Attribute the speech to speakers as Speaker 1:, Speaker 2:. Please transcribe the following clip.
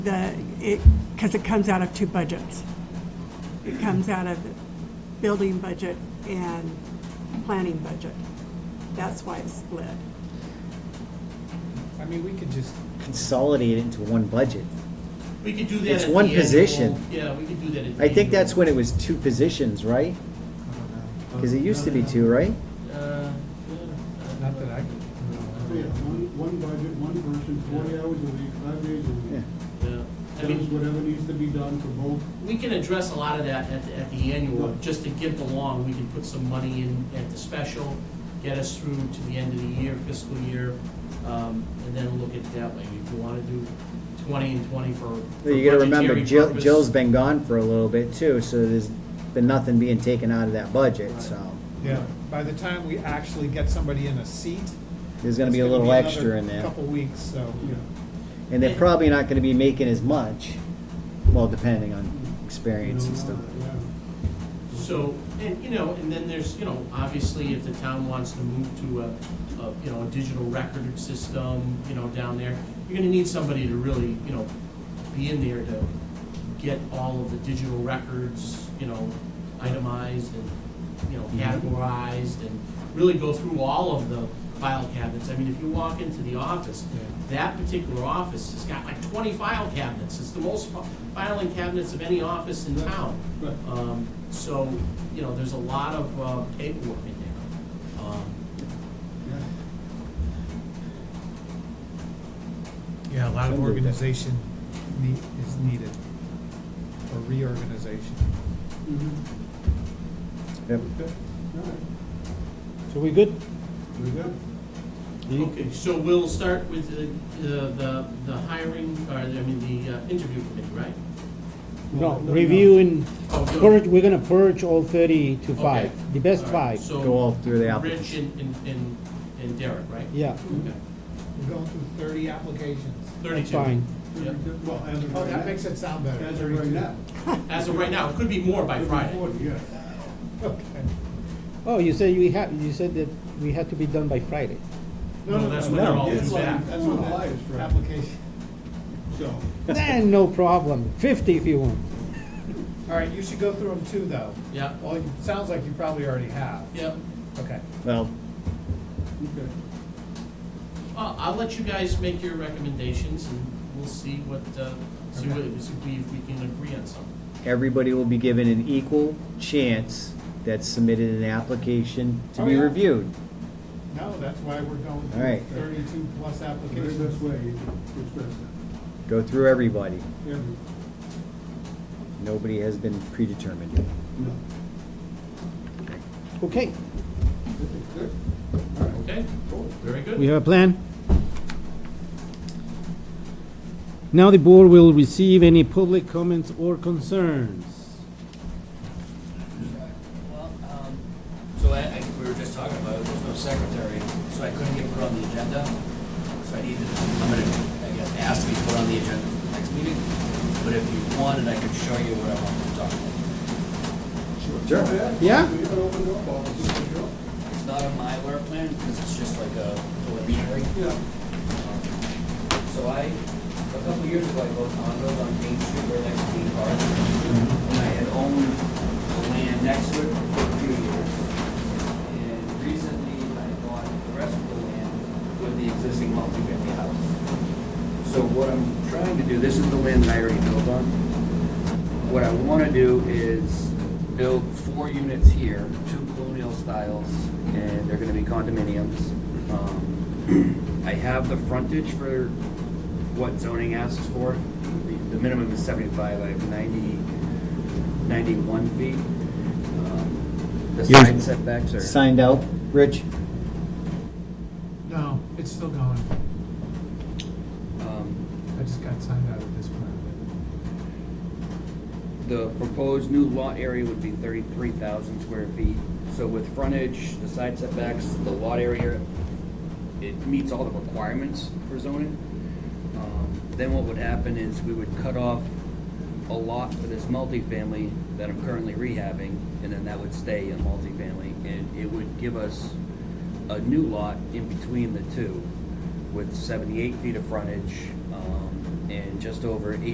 Speaker 1: the, it, because it comes out of two budgets. It comes out of the building budget and planning budget. That's why it's split.
Speaker 2: I mean, we could just,
Speaker 3: consolidate it into one budget.
Speaker 4: We could do that.
Speaker 3: It's
Speaker 4: at the
Speaker 3: one
Speaker 4: annual-
Speaker 3: position.
Speaker 4: Yeah, we could do that at the
Speaker 3: I think
Speaker 4: annual.
Speaker 3: that's when it was two positions,
Speaker 2: I
Speaker 3: right?
Speaker 2: don't know.
Speaker 3: Because it used to be two, right?
Speaker 4: Uh, yeah,
Speaker 2: Not that I could.
Speaker 5: Oh, Yeah, one, one budget, one person, forty hours a week, five days a
Speaker 3: Yeah.
Speaker 5: week.
Speaker 4: yeah. I
Speaker 5: Does
Speaker 4: mean,
Speaker 5: whatever needs to be done for both.
Speaker 4: we can address a lot of that at, the- at the annual,
Speaker 5: Yeah.
Speaker 4: just to get along, we can put some money in at the special, get us through to the end of the year, fiscal year, um, and then look at it that way. If you wanna do twenty and twenty for. for
Speaker 3: You gotta remember,
Speaker 4: budgetary
Speaker 3: Jill,
Speaker 4: purpose-
Speaker 3: Jill's been gone for a little bit too, so there's been nothing being taken out of that budget,
Speaker 4: Right.
Speaker 3: so
Speaker 2: Yeah, by the time we actually get somebody in a seat.
Speaker 3: there's gonna
Speaker 2: it's
Speaker 3: be a little
Speaker 2: another
Speaker 3: extra in there.
Speaker 2: Couple weeks, so,
Speaker 5: Yeah.
Speaker 3: And they're probably not gonna be making as much, well, depending on experience and stuff.
Speaker 5: Yeah.
Speaker 4: So, and, you know, and then there's, you know, obviously if the town wants to move to a, a, you know, a digital record system, you know, down there, you're gonna need somebody to really, you know, be in there to get all of the digital records, you know, itemized and, you
Speaker 5: Mm-hmm.
Speaker 4: know, categorized and really go through all of the file cabinets. I mean, if you walk into the office, that particular office has got like twenty file cabinets. It's the most fi- filing cabinets of any office in town.
Speaker 5: Right.
Speaker 4: Um, So, you know, there's a lot of uh, paperwork in there. Um,
Speaker 5: Yeah.
Speaker 2: yeah, a lot of
Speaker 3: Some do.
Speaker 2: organization need, is needed, or reorganization.
Speaker 5: Mhm.
Speaker 3: Yep.
Speaker 5: Okay, all right,
Speaker 6: So we good?
Speaker 5: we good?
Speaker 6: You-
Speaker 4: Okay, so we'll start with the, the- the, the hiring, or, I mean, the uh, interview committee, right?
Speaker 6: No, reviewing,
Speaker 4: Oh, good.
Speaker 6: purge, we're gonna purge all thirty to
Speaker 4: Okay.
Speaker 6: five, the best
Speaker 4: All right,
Speaker 6: five.
Speaker 4: so
Speaker 3: Go all through the
Speaker 4: Rich
Speaker 3: applicants.
Speaker 4: and, and- and, and Derek, right?
Speaker 6: Yeah,
Speaker 4: Okay,
Speaker 2: We're going through thirty applications.
Speaker 4: thirty-two.
Speaker 6: fine.
Speaker 4: Yeah.
Speaker 5: Well, as of
Speaker 2: Oh, that
Speaker 5: right
Speaker 2: makes it sound better.
Speaker 5: now, as of right now.
Speaker 4: As of right now, it could be more by
Speaker 5: it'll be
Speaker 4: Friday.
Speaker 5: 40, yeah.
Speaker 2: Okay.
Speaker 6: Oh, you said we had, you said that we had to be done by Friday.
Speaker 4: No, that's when they're all due back.
Speaker 5: That's what the lie is, right?
Speaker 2: Application.
Speaker 5: So,
Speaker 6: Then, no problem, fifty if you want.
Speaker 2: All right, you should go through them too, though.
Speaker 4: Yeah,
Speaker 2: Well, it sounds like you probably already have.
Speaker 4: yeah.
Speaker 2: Okay.
Speaker 3: Well,
Speaker 5: okay.
Speaker 4: Well, I'll let you guys make your recommendations and we'll see what, uh, see what, see if we, if we can agree on something.
Speaker 3: everybody will be given an equal chance that submitted an application to
Speaker 2: Oh,
Speaker 3: be
Speaker 2: yeah.
Speaker 3: reviewed.
Speaker 2: No, that's why we're going
Speaker 3: All
Speaker 2: through
Speaker 3: right.
Speaker 2: thirty-two plus
Speaker 5: Very best
Speaker 2: applications.
Speaker 5: way to express
Speaker 3: Go through everybody.
Speaker 5: that. Yeah,
Speaker 3: Nobody has been predetermined.
Speaker 5: no.
Speaker 6: Okay,
Speaker 5: Okay, Good, all right,
Speaker 4: Okay?
Speaker 5: cool.
Speaker 4: Very good.
Speaker 6: we have a plan. Now the board will receive any public comments or concerns.
Speaker 7: Well, um, So I, I, we were just talking about, it. there's no secretary, so I couldn't get put on the agenda. So I needed, I'm gonna, I guess, ask to be put on the agenda for the next meeting. But if you wanted, I could show you what I wanted to talk about.
Speaker 3: Sure.
Speaker 6: Yeah?
Speaker 5: We have an open door policy, for sure.
Speaker 7: It's not a Mylar plan, because it's just like a preliminary. Um,
Speaker 5: Yeah.
Speaker 7: So I, a couple years ago, I bought condos on Main Street where next to Dean Park. And I had owned the land next to it for a few years. And recently, I bought the rest of the land with the existing multifamily house. So what I'm trying to do, this is the land that I already built on. What I want to do is build four units here, two colonial styles, and they're going to be condominiums. Um, I have the frontage for what zoning asks for. The- The minimum is 75, I have 90, 91 feet. Um, The
Speaker 3: Yours-
Speaker 7: side setbacks are.
Speaker 3: Signed out, Rich?
Speaker 2: No, it's still going.
Speaker 7: um,
Speaker 2: I just got signed out of this one.
Speaker 7: The proposed new lot area would be thirty-three thousand square feet. So with frontage, the side setbacks, the lot area, it meets all the requirements for zoning. Um, Then what would happen is we would cut off a lot for this multifamily that I'm currently rehabbing, and then that would stay in multifamily, and it would give us a new lot in between the two with seventy-eight feet of frontage, um, and just over eight.